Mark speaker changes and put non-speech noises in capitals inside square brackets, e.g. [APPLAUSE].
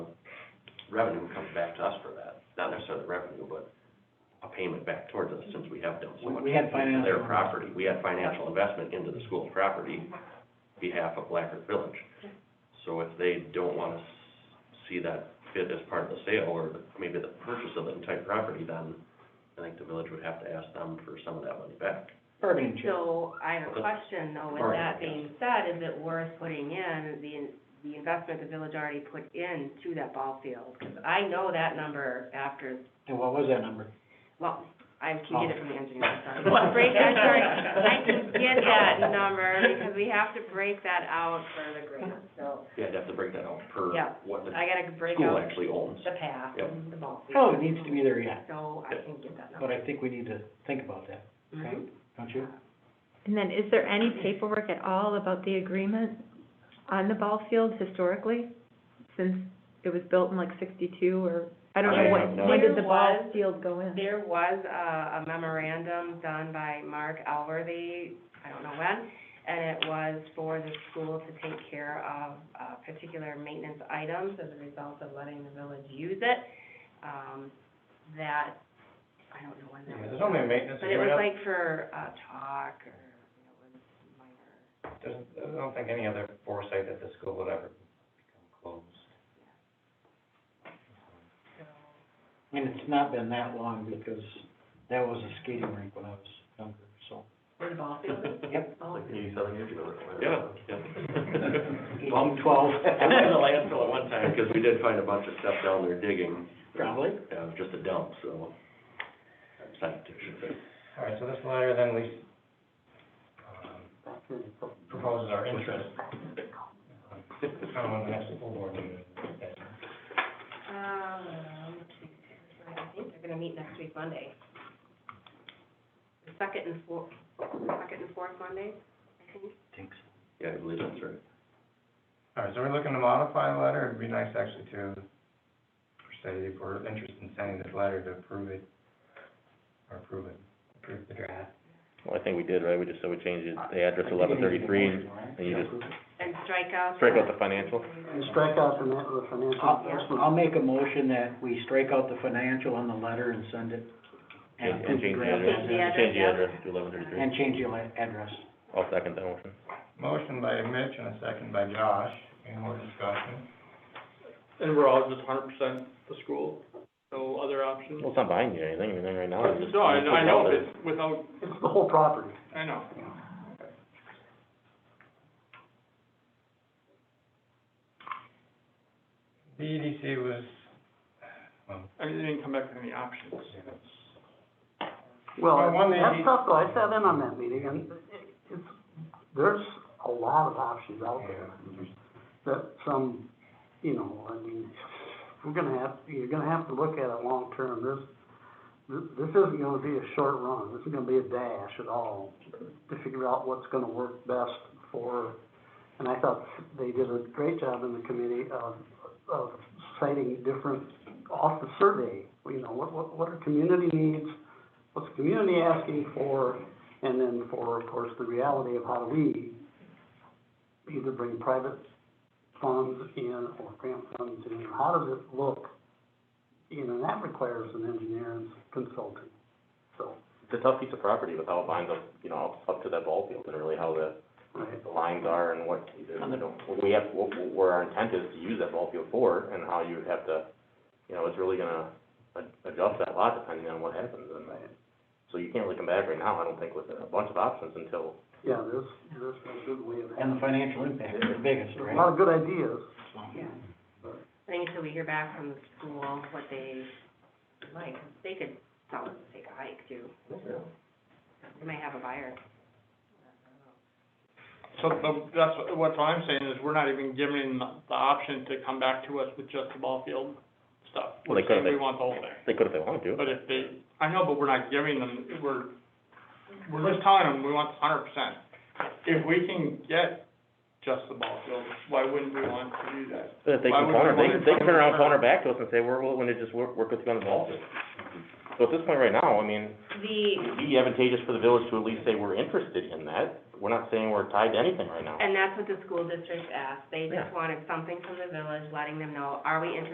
Speaker 1: revenue comes back to us for that, not necessarily revenue, but a payment back towards us, since we have done so
Speaker 2: We-
Speaker 1: much.
Speaker 2: we had
Speaker 1: into Their
Speaker 2: financial-
Speaker 1: property, we had financial investment into the school's property, behalf of Black Earth Village. So if they don't wanna s- see that fit as part of the sale, or the- maybe the purchase of the entire property, then I think the village would have to ask them for some of that money back.
Speaker 2: bargaining chip.
Speaker 3: So I have a question though, with
Speaker 1: Alright,
Speaker 3: that
Speaker 1: yes.
Speaker 3: being said, is it worth putting in the, the investment the village already put in to that ball field? 'Cause I know that number after,
Speaker 2: And what was that number?
Speaker 3: well, I can get it from the engineering, sorry.
Speaker 2: [LAUGHS]
Speaker 3: Break that, sorry, I can get that number because we have to break that out for the grant, so
Speaker 1: Yeah, I'd have to break that out per
Speaker 3: Yeah.
Speaker 1: what the
Speaker 3: I gotta break
Speaker 1: school
Speaker 3: out
Speaker 1: actually owns.
Speaker 3: the path
Speaker 1: Yep.
Speaker 3: and the ball field.
Speaker 2: Oh, it needs to be there yet,
Speaker 3: So I can get that
Speaker 2: but
Speaker 3: number.
Speaker 2: I think we need to think about that, okay?
Speaker 3: Mhm.
Speaker 2: Don't you?
Speaker 4: And then, is there any paperwork at all about the agreement on the ball field historically? Since it was built in like sixty-two or, I don't know,
Speaker 1: I have
Speaker 4: what,
Speaker 1: no
Speaker 4: when did
Speaker 3: idea.
Speaker 4: the ball
Speaker 3: There was-
Speaker 4: field go in?
Speaker 3: There was a a memorandum done by Mark Alworthy, I don't know when, and it was for the school to take care of, uh, particular maintenance items as a result of letting the village use it. Um, that, I don't know when that was.
Speaker 5: There's only a maintenance
Speaker 3: But it was
Speaker 5: agreement,
Speaker 3: like for, uh, talk or, you know, it was minor.
Speaker 5: there's, I don't think any other foresight that the school would ever become closed.
Speaker 2: And it's not been that long because that was a skating rink when I was younger, so.
Speaker 3: Where the ball field is?
Speaker 2: Yep.
Speaker 3: Oh,
Speaker 1: Eighty-seven years ago. [LAUGHS] Yeah, [LAUGHS] yeah.
Speaker 2: Well, I'm twelve. [LAUGHS]
Speaker 1: I went to the
Speaker 6: [LAUGHS]
Speaker 1: landfill at one time, because we did find a bunch of stuff down there digging,
Speaker 2: Probably.
Speaker 1: uh, just a dump, so. I'm psyched, I should say.
Speaker 5: All right, so this letter then we, um, proposes our interest. Um, on the next full board meeting.
Speaker 3: Um, I think they're gonna meet next week, Monday. The second and fourth, second and fourth Monday, I think.
Speaker 2: Thanks.
Speaker 1: Yeah, I believe that's right.
Speaker 5: All right, so we're looking to modify the letter, it'd be nice actually to, say, if we're interested in sending this letter to approve it, or approve it, approve the draft.
Speaker 6: Well, I think we did, right? We just, so we changed it- the address
Speaker 2: I think
Speaker 6: eleven
Speaker 2: it needs to be
Speaker 6: thirty-three, and
Speaker 2: motion, right?
Speaker 6: and you
Speaker 2: Yeah,
Speaker 6: just
Speaker 2: approve it.
Speaker 3: And strike out.
Speaker 6: strike out the financial.
Speaker 7: And strike out the, ma- the financial
Speaker 2: I'll,
Speaker 7: investment.
Speaker 2: I'll make a motion that we strike out the financial on the letter and send it.
Speaker 6: and- And change the
Speaker 2: draft
Speaker 6: address,
Speaker 3: the address,
Speaker 6: change the
Speaker 3: yeah.
Speaker 6: address to eleven thirty-three.
Speaker 2: And change the la- address.
Speaker 6: I'll second that motion.
Speaker 5: Motion by Mitch and a second by Josh, any more discussion?
Speaker 8: And we're all just hundred percent the school, no other option?
Speaker 6: Well, it's not buying you anything, anything right now. it's just-
Speaker 8: No, I,
Speaker 6: it's just
Speaker 8: I know,
Speaker 6: out there.
Speaker 8: but without,
Speaker 7: It's the whole property.
Speaker 8: I know.
Speaker 5: The EDC E was, well,
Speaker 8: I mean, they didn't come back with any options.
Speaker 7: Well,
Speaker 5: Well, one thing-
Speaker 7: that's tough, though, I sat in on that meeting, and it's, there's a lot of options out there. That some, you know, I mean, we're gonna have, you're gonna have to look at it long-term, this, thi- this isn't gonna be a short run, this is gonna be a dash at all, to figure out what's gonna work best for, and I thought they did a great job in the committee of, of citing different, off the survey, you know, what, what, what are community needs, what's the community asking for, and then for, of course, the reality of how do we either bring private funds in or grant funds in, how does it look? You know, that requires an engineer and consulting, so,
Speaker 6: It's a tough piece of property with how it lines up, you know, up- up to that ball field and really how the,
Speaker 7: right,
Speaker 6: the lines are and what, you know, what we have, what, what- where our intent is to use that ball field for and how you would have to, you know, it's really gonna a- adjust that lot depending on what happens and
Speaker 7: right.
Speaker 6: So you can't really come back right now, I don't think, with a bunch of options until
Speaker 7: Yeah, there's, there's a good way of
Speaker 2: And the
Speaker 7: having,
Speaker 2: financial impact is the biggest,
Speaker 7: there's
Speaker 2: right?
Speaker 7: a lot of good ideas.
Speaker 3: Yeah. I think until we hear back from the school, what they like, they could tell us to take a hike too. They might have a buyer.
Speaker 8: So the- that's, what- what I'm saying is we're not even given the option to come back to us with just the ball field stuff.
Speaker 6: Well, they
Speaker 8: We're saying
Speaker 6: could, they-
Speaker 8: We want the whole thing.
Speaker 6: they could if they wanted to.
Speaker 8: But if they, I know, but we're not giving them, we're, we're just telling them we want hundred percent. If we can get just the ball field, why wouldn't we want to do that?
Speaker 6: But if they
Speaker 8: Why
Speaker 6: can
Speaker 8: would
Speaker 6: counter,
Speaker 8: they
Speaker 6: they
Speaker 8: want
Speaker 6: can,
Speaker 8: to
Speaker 6: they can turn around, and
Speaker 8: counter-
Speaker 6: counter back to us and say, we're willing to just work, work with you on the ball field. So at this point right now, I mean,
Speaker 3: The,
Speaker 6: it'd be advantageous for the village to at least say we're interested in that. We're not saying we're tied to anything right now.
Speaker 3: and that's what the school district asked, they
Speaker 6: Yeah.
Speaker 3: just wanted something from the village letting them know, are we interested